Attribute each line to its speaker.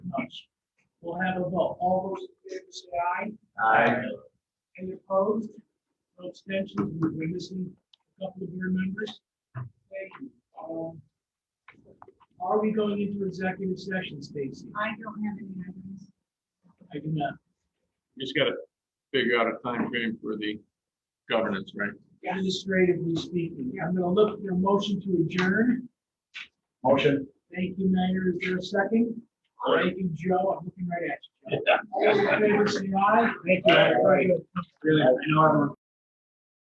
Speaker 1: We'll have a vote. All those in favor say aye. Any opposed? No extensions. We're missing a couple of your members. Thank you. Um, Are we going into executive session, Stacy?
Speaker 2: I don't have any items.
Speaker 1: I do not.
Speaker 3: Just gotta figure out a time frame for the governance, right?
Speaker 1: Administratively speaking, I'm gonna look for a motion to adjourn.
Speaker 3: Motion.
Speaker 1: Thank you, Mayor. Is there a second?
Speaker 3: Aye.
Speaker 1: Thank you, Joe. I'm looking right at you. Joe. All those in favor say aye. Thank you. everybody.
Speaker 3: Really, I know I'm.